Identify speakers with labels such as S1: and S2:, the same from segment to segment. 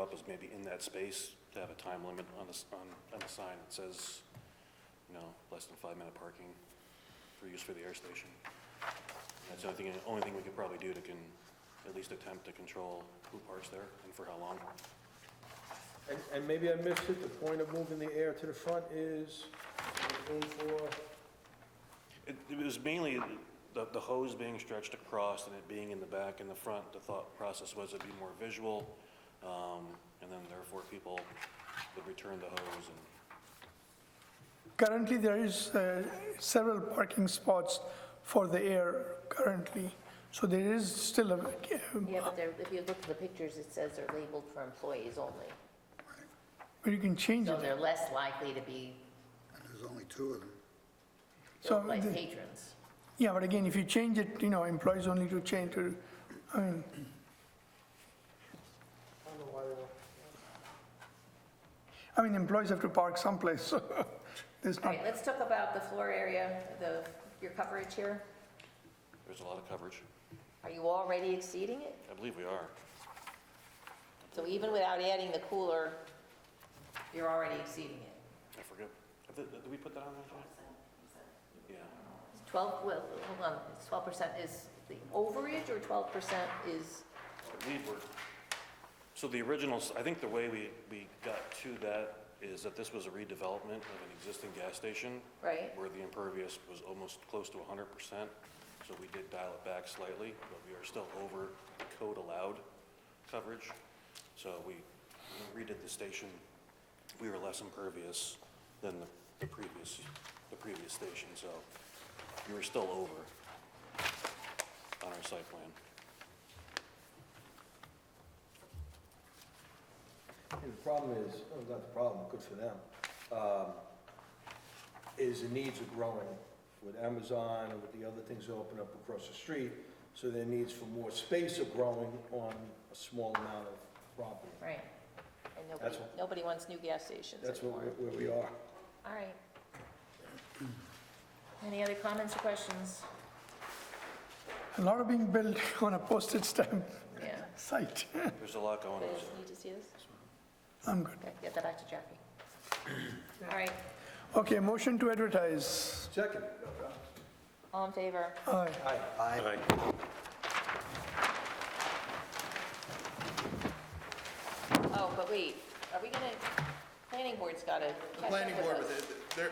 S1: up is maybe in that space to have a time limit on the, s- on, on the sign that says, you know, less than five-minute parking for use for the air station. That's the only thing, only thing we could probably do to can, at least attempt to control who parks there and for how long.
S2: And, and maybe I missed it, the point of moving the air to the front is room for,
S1: It, it was mainly the, the hose being stretched across and it being in the back and the front, the thought process was it'd be more visual, um, and then therefore people would return the hose and,
S3: Currently, there is uh, several parking spots for the air currently, so there is still a, uh,
S4: Yeah, but there, if you look at the pictures, it says they're labeled for employees only.
S3: but you can change
S4: So
S3: it.
S4: they're less likely to be
S5: There's only two of them.
S3: So,
S4: like
S3: the-
S4: patrons.
S3: yeah, but again, if you change it, you know, employees only to change to, I mean,
S2: I don't know why they were-
S3: I mean, employees have to park someplace, so there's
S4: All
S3: not,
S4: right, let's talk about the floor area, the, your coverage here.
S1: there's a lot of coverage.
S4: Are you already exceeding it?
S1: I believe we are.
S4: So even without adding the cooler, you're already exceeding it.
S1: I forget. Did, did we put that on there? Jack? Yeah.
S4: It's 12, well, hold on, it's 12% is the overage or 12% is,
S1: I believe we're, so the original, s- I think the way we, we got to that is that this was a redevelopment of an existing gas station
S4: right?
S1: where the impervious was almost close to hundred percent. So we did dial it back slightly, but we are still over the code allowed coverage. So we we redid the station. We were less impervious than the, the previous, the previous station, so we were still over on our site plan.
S2: The problem is, oh, not the problem, good for them, um, is the needs are growing with Amazon and with the other things that open up across the street, so their needs for more space are growing on a small amount of property.
S4: Right. And nobody,
S2: That's what-
S4: nobody wants new gas stations
S2: That's what
S4: anymore.
S2: we- where we are.
S4: All right. Any other comments or questions?
S3: a lot of being built on a postage stamp
S4: Yeah.
S3: site.
S1: There's a lot going on.
S4: You guys need to see this?
S3: I'm good.
S4: Okay, get that back to Jackie. All right,
S3: Okay, motion to advertise.
S2: Second.
S4: all in favor?
S3: Aye.
S2: Aye.
S4: Oh, but wait, are we gonna, planning board's gotta catch
S6: The
S4: up
S6: planning board,
S4: with us.
S6: but there,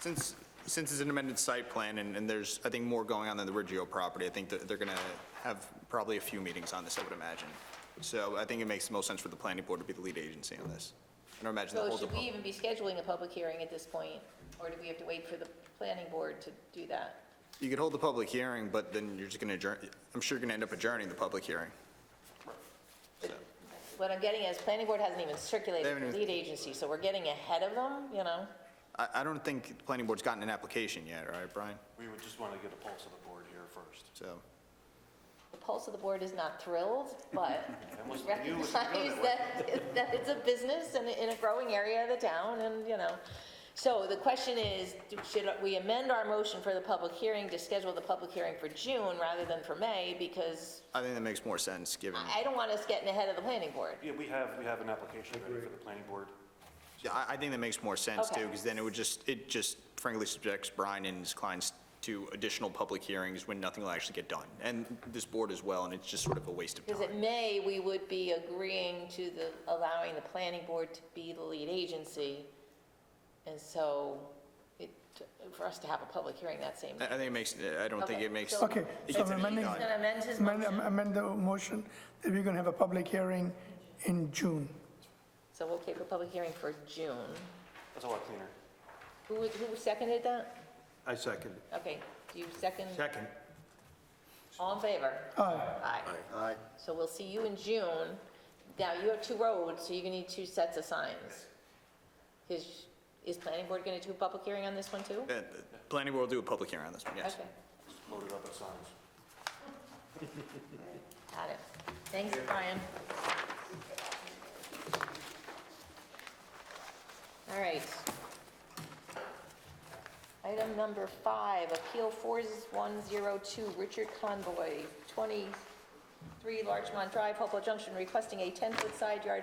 S6: since, since it's an amended site plan, and, and there's, I think, more going on than the Riggio property, I think that they're gonna have probably a few meetings on this, I would imagine. So I think it makes the most sense for the planning board to be the lead agency on this. I don't imagine the
S4: So
S6: whole
S4: should we
S6: department.
S4: even be scheduling a public hearing at this point? Or do we have to wait for the planning board to do that?
S6: You could hold the public hearing, but then you're just gonna adjourn, I'm sure you're gonna end up adjourning the public hearing.
S4: What I'm getting is, planning board hasn't even
S6: They
S4: circulated
S6: haven't
S4: the
S6: even-
S4: lead agency, so we're getting ahead of them, you know?
S6: I, I don't think the planning board's gotten an application yet, right, Brian?
S1: We would just want to get a pulse of the board here first.
S6: So,
S4: The pulse of the board is not thrilled, but
S1: I must knew it
S4: recognize
S1: was gonna go that way.
S4: that, that it's a business and in a growing area of the town and, you know. So the question is, do- should we amend our motion for the public hearing to schedule the public hearing for June rather than for May? Because
S6: I think that makes more sense, given,
S4: I I don't want us getting ahead of the planning board.
S1: Yeah, we have, we have an application ready for the planning board.
S6: Yeah, I, I think that makes more sense too,
S4: Okay.
S6: because then it would just, it just frankly subjects Brian and his clients to additional public hearings when nothing will actually get done, and this board as well, and it's just sort of a waste of
S4: Because at
S6: time.
S4: May, we would be agreeing to the, allowing the planning board to be the lead agency. And so it, for us to have a public hearing that same
S6: I I
S4: night.
S6: think it makes, I don't think
S4: Okay,
S6: it makes.
S4: so-
S3: Okay,
S6: it
S3: so
S6: gets an E
S3: amending,
S6: dot.
S4: He's gonna amend his
S3: amend
S4: motion.
S3: amend the motion that we're going to have a public hearing in June.
S4: So we'll keep a public hearing for June.
S1: That's a lot cleaner.
S4: Who, was- who seconded that?
S2: I second.
S4: Okay, do you second?
S2: Second.
S4: All in favor?
S3: Aye.
S4: Aye.
S5: Aye.
S4: So we'll see you in June. Now, you have two roads, so you're gonna need two sets of signs. Is, is planning board gonna do a public hearing on this one too?
S6: Uh, the Planning board will do a public hearing on this one, yes.
S4: Okay,
S1: Loaded up with signs.
S4: got it. Thanks, Brian. All right. Item number five, Appeal 4102, Richard Convoy, 23 Larchmont Drive, Hopewell Junction, requesting a 10-foot side yard